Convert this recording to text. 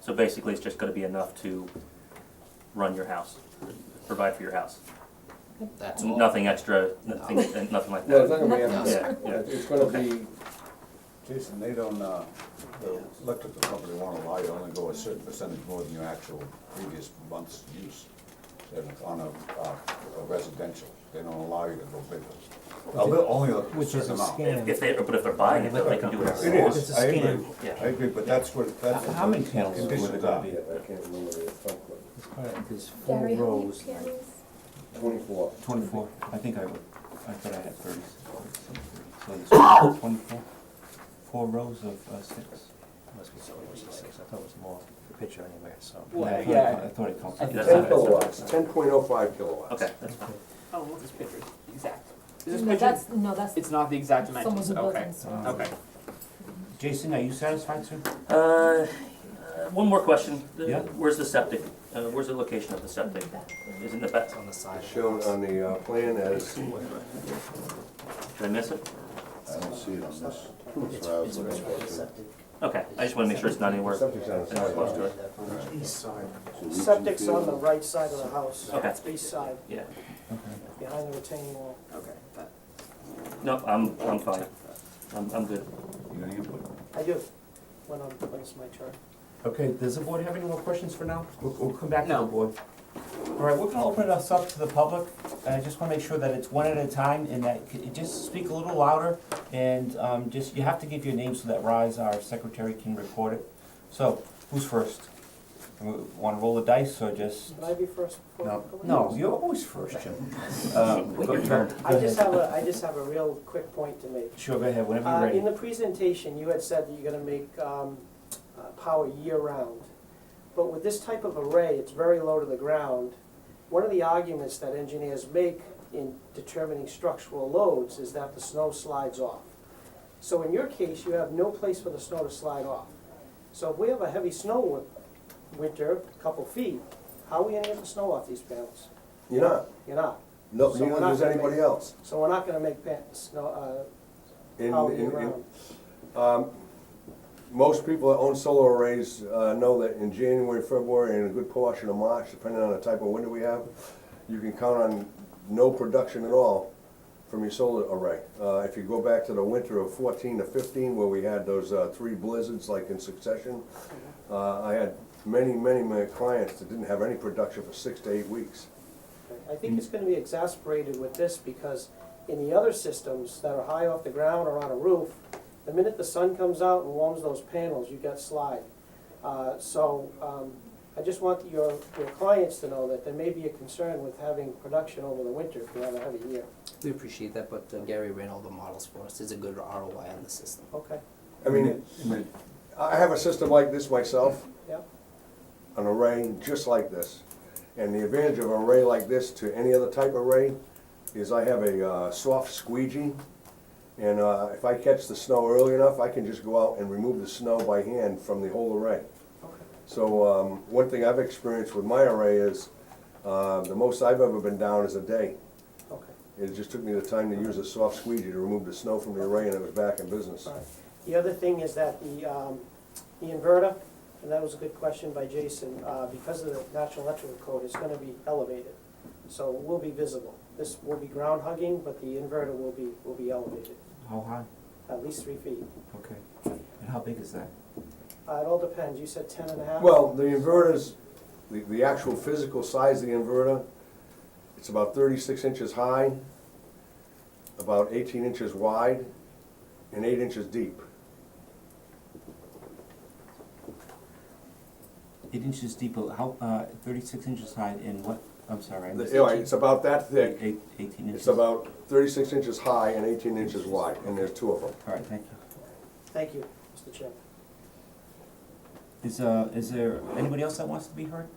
So basically, it's just gonna be enough to run your house, provide for your house. That's all. Nothing extra, nothing, and nothing like No, it's that. not gonna be, No. empty. Yeah, yeah. it's gonna be, Jason, they don't, uh, the electrical company won't allow you to only go a certain percentage more than your actual previous month's use. They're On a, uh, a residential, they don't allow you to go bigger. A little, only a Which is certain a amount. scam. It If if they, but if they're buying it, though, they can do whatever they want. is, It's a I agree, Yeah. I agree, but that's what, that's. How many panels would Conditions it are. be? yeah, I can't remember what it's called, There's four Gary, how many rows, panels? twenty-four. twenty-four, I think I, would- I thought I had thirty. So there's twenty-four, four rows of, uh, six. Must be somewhere with six, I thought it was more, the picture anyway, so. Well, I thought it yeah. co- I thought it counted. I think That's Ten not- kilowatts, ten point oh five kilowatts. Okay, that's fine. Oh, well, this picture, exactly. Is this No, picture, that's, no, that's, it's not the exact it's almost dimensions, a okay, building, so. Oh. okay. Jason, are you satisfied, sir? Uh, uh, one more question. The- Yeah. Where's the septic? Uh, where's the location of the septic? Is it in the back? On the side. It's shown on the uh, plan as, Did I miss it? I don't see it on this. That's what I was looking for, too. Okay, I just wanna make sure it's not anywhere. Septic's on the that's close to it. East side. So we can Septic's on the feel- right side of the house. Okay. It's East side, Yeah, behind the retaining wall. Okay, that, no, I'm, I'm fine. I'm, I'm good. You got any input? I do, when I'm, when it's my turn. Okay, does the board have any more questions for now? We'll, we'll come back to the No. board. All right, we're gonna open us up to the public. I just wanna make sure that it's one at a time and that, c- just speak a little louder. And, um, just, you have to give your name so that Rise, our secretary, can record it. So, who's first? W- Wanna roll the dice or just? Can I be first? before No, everybody no, else? you're always first, Jim. Um, go- Your turn. go I just ahead. have a, I just have a real quick point to make. Sure, go ahead, whenever Uh, you're in ready. the presentation, you had said that you're gonna make, um, uh, power year-round. But with this type of array, it's very low to the ground. One of the arguments that engineers make in determining structural loads is that the snow slides off. So in your case, you have no place for the snow to slide off. So if we have a heavy snow wi- winter, a couple feet, how are we gonna get the snow off these panels? you're not, You're not. no, So neither we're not does gonna anybody make- else. So we're not gonna make pan, snow, uh, In- power in- in- year-round. Um, Most people that own solar arrays uh, know that in January, February, and a good portion of March, depending on the type of winter we have, you can count on no production at all from your solar array. Uh, If you go back to the winter of fourteen to fifteen, where we had those uh, three blizzards like in succession, uh, I had many, many, many clients that didn't have any production for six to eight weeks. I think it's gonna be exasperated with this because in the other systems that are high off the ground or on a roof, the minute the sun comes out and warms those panels, you get slide. Uh, so, um, I just want your, your clients to know that there may be a concern with having production over the winter if you have a heavy year. We appreciate that, but uh, Gary ran all the models for us. There's a good ROI on the system. Okay, I mean, I have a system like this myself, yeah, an array just like this. And the advantage of an array like this to any other type of array is I have a uh, soft squeegee. And uh, if I catch the snow early enough, I can just go out and remove the snow by hand from the whole array. okay. So um, one thing I've experienced with my array is, uh, the most I've ever been down is a day. Okay, It just took me the time to use a soft squeegee to remove the snow from the array and it was back in business. all right. The other thing is that the, um, the inverter, and that was a good question by Jason, uh, because of the National Electrical Code, it's gonna be elevated. So it will be visible. This will be ground hugging, but the inverter will be, will be elevated, How high? at least three feet. Okay. And how big is that? Uh, it all depends. You said ten and a half? Well, the inverters, the, the actual physical size of the inverter, it's about thirty-six inches high, about eighteen inches wide, and eight inches deep. Eight inches deep, how, uh, thirty-six inches high and what, I'm sorry, I The- missed. you know, It's about that thick, Eight- Eighteen inches. it's about thirty-six inches high and eighteen inches wide, and there's two of them. All right, thank you. Thank you, Mr. Chairman. Is, uh, is there anybody else that wants to be heard?